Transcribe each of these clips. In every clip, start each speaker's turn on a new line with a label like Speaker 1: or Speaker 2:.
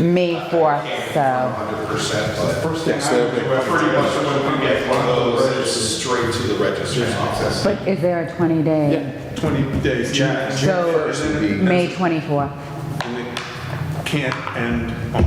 Speaker 1: May 4th, so,
Speaker 2: Hundred percent, but
Speaker 3: First thing
Speaker 2: next Thursday,
Speaker 3: I,
Speaker 2: we're pretty much when we get one of those, it's straight to the registrar's office.
Speaker 1: but is there a 20-day?
Speaker 3: yeah, 20 days, yeah.
Speaker 2: June- June
Speaker 1: So,
Speaker 2: 1st would be-
Speaker 1: May 24th.
Speaker 3: And it can't end on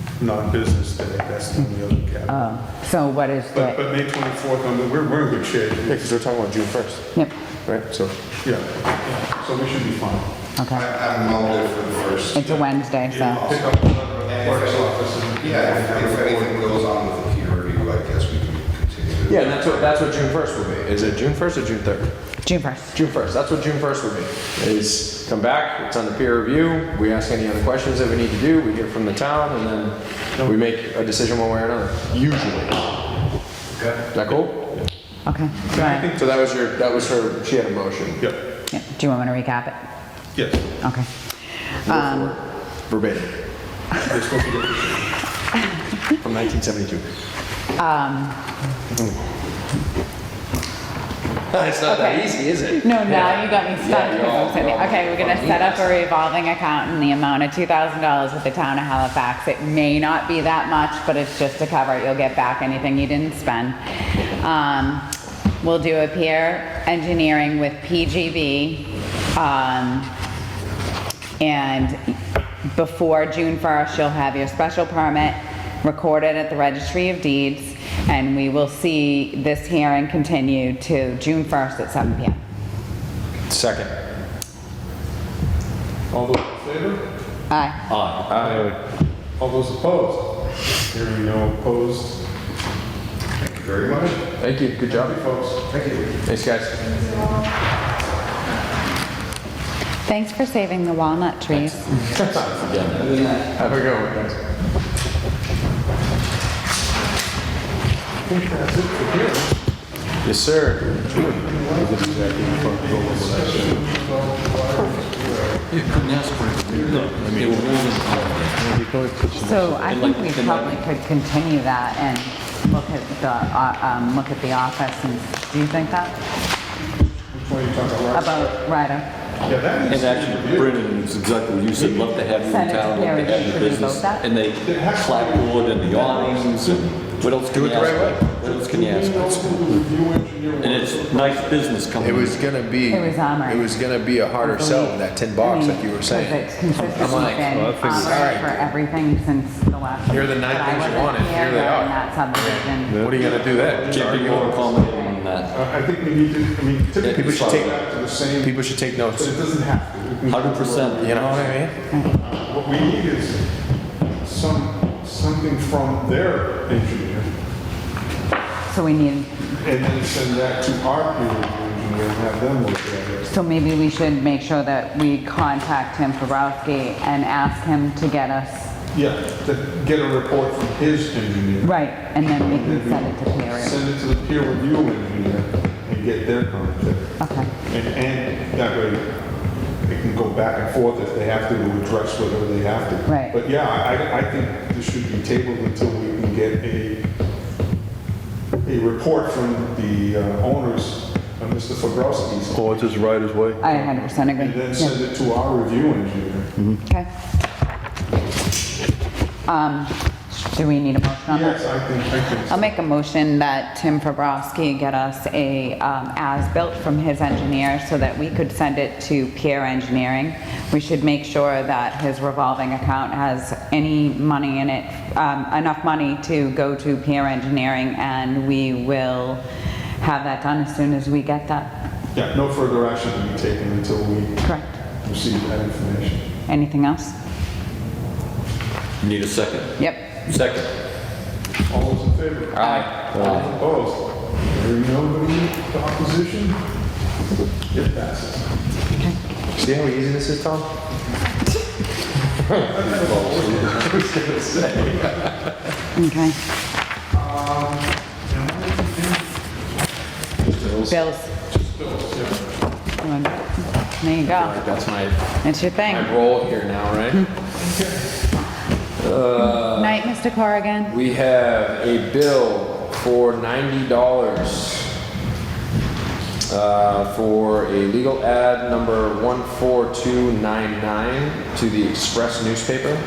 Speaker 3: a non-business day, that's the only other cap.
Speaker 1: Oh, so what is
Speaker 3: But,
Speaker 1: the,
Speaker 3: but May 24th, I mean, we're, we're in good shape,
Speaker 4: because we're talking about June 1st,
Speaker 1: yep,
Speaker 4: right? So,
Speaker 3: yeah, so we should be fine.
Speaker 2: I-
Speaker 1: okay.
Speaker 2: I'm all good for the first.
Speaker 1: It's a Wednesday, so,
Speaker 3: Pick up the clerk's office and.
Speaker 2: Yeah, if- if anything goes on with the peer review, I guess we can continue.
Speaker 4: yeah, and that's what, that's what June 1st will be. Is it June 1st or June 3rd?
Speaker 1: June 1st.
Speaker 4: June 1st, that's what June 1st will be, is come back, it's on the peer review, we ask any other questions that we need to do, we hear from the town, and then we make a decision one way or another, usually. Is that cool?
Speaker 1: Okay, do I-
Speaker 4: So that was your, that was her, she had a motion.
Speaker 3: Yeah,
Speaker 1: yeah, do you want me to recap it?
Speaker 3: yes.
Speaker 1: Okay.
Speaker 4: Go for it. Verbatim. From 1972.
Speaker 1: Um.
Speaker 4: It's not that
Speaker 1: Okay.
Speaker 4: easy, is it?
Speaker 1: No, now you got me
Speaker 4: Yeah,
Speaker 1: stuck.
Speaker 4: you're
Speaker 1: because I'm
Speaker 4: all-
Speaker 1: sitting
Speaker 4: you're
Speaker 1: there.
Speaker 4: all
Speaker 1: Okay, we're gonna set up a revolving account in the amount of two thousand dollars with the town of Halifax. It may not be that much, but it's just to cover it. You'll get back anything you didn't spend. Um, we'll do a peer engineering with PGB. Um, and before June 1st, you'll have your special permit recorded at the Registry of Deeds, and we will see this hearing continue to June 1st at 7 PM.
Speaker 4: Second.
Speaker 3: All those in favor?
Speaker 1: Aye.
Speaker 3: Aye. All those opposed? Hearing no opposed.
Speaker 2: Thank you very much.
Speaker 4: Thank you, good job.
Speaker 3: Happy folks.
Speaker 2: Thank you.
Speaker 4: Thanks, guys.
Speaker 1: Thanks for saving the walnut trees.
Speaker 4: Have a good one, guys. Yes, sir.
Speaker 1: So I think we probably could continue that and look at the, uh, um, look at the office and, do you think that?
Speaker 3: Which one are you talking about?
Speaker 1: About Ryder?
Speaker 3: Yeah, that needs
Speaker 5: And
Speaker 3: to be
Speaker 5: actually,
Speaker 3: reviewed.
Speaker 5: Brennan is exactly what you said, love to have you in town, love to have your business. And they clapboard and the awnings and what else can you ask? for? What else can you ask? for?
Speaker 3: Review engineer.
Speaker 5: And it's nice business coming.
Speaker 6: It was gonna be.
Speaker 1: It was armor.
Speaker 6: It was gonna be a harder sell than that tin box, like you were saying.
Speaker 1: Because it's consistently
Speaker 6: like,
Speaker 1: been
Speaker 6: well, I figured-
Speaker 1: armored for everything since the last.
Speaker 6: Here are the nine
Speaker 1: but I
Speaker 6: things you
Speaker 1: wasn't
Speaker 6: wanted. Here they
Speaker 1: during
Speaker 6: are.
Speaker 1: that subdivision.
Speaker 6: What are you gonna do then? Just
Speaker 5: Can't be
Speaker 6: argue?
Speaker 5: more accommodating than that.
Speaker 3: Uh, I think we need to, I mean, typically
Speaker 6: People
Speaker 3: we
Speaker 6: should
Speaker 3: should
Speaker 6: take-
Speaker 3: back to the same,
Speaker 6: People should take
Speaker 3: but
Speaker 6: notes.
Speaker 3: it doesn't have to. We can-
Speaker 5: Hundred percent.
Speaker 6: You know what I mean?
Speaker 3: What we need is some, something from their engineer
Speaker 1: So we need,
Speaker 3: and then send that to our peer review engineer and have them look at it.
Speaker 1: so maybe we should make sure that we contact Tim Farowski and ask him to get us,
Speaker 3: Yeah, to get a report from his engineer.
Speaker 1: right, and then we can send it to peer review.
Speaker 3: Send it to the peer review engineer and get their comment.
Speaker 1: Okay,
Speaker 3: And, and that way, it can go back and forth if they have to, to address whatever they have to.
Speaker 1: Right.
Speaker 3: But yeah, I, I think this should be tabled until we can get a, a report from the uh, owners of Mr. Fabrowski's.
Speaker 7: Oh, it's just right as way?
Speaker 1: I 100%
Speaker 3: And then
Speaker 1: agree.
Speaker 3: send
Speaker 1: Yeah.
Speaker 3: it to our review engineer.
Speaker 1: Okay. Um, do we need a motion on that?
Speaker 3: Yes, I think, I think. so.
Speaker 1: I'll make a motion that Tim Fabrowski get us a um, as-built from his engineer so that we could send it to peer engineering. We should make sure that his revolving account has any money in it, um, enough money to go to peer engineering, and we will have that done as soon as we get that.
Speaker 3: Yeah, no further action to be taken until we
Speaker 1: Correct.
Speaker 3: receive that information.
Speaker 1: Anything else?
Speaker 5: Need a second.
Speaker 1: Yep.
Speaker 5: Second.
Speaker 3: All those in favor? Aye. All those opposed? Hearing nobody, opposition? It passes.
Speaker 4: See how easy this is, Tom?
Speaker 1: Okay. Bills. There you go.
Speaker 4: That's my,
Speaker 1: It's your thing.
Speaker 4: my role here now, right?
Speaker 1: Night, Mr. Corrigan.
Speaker 4: We have a bill for ninety dollars uh, for a legal ad number one four two nine nine to the Express newspaper.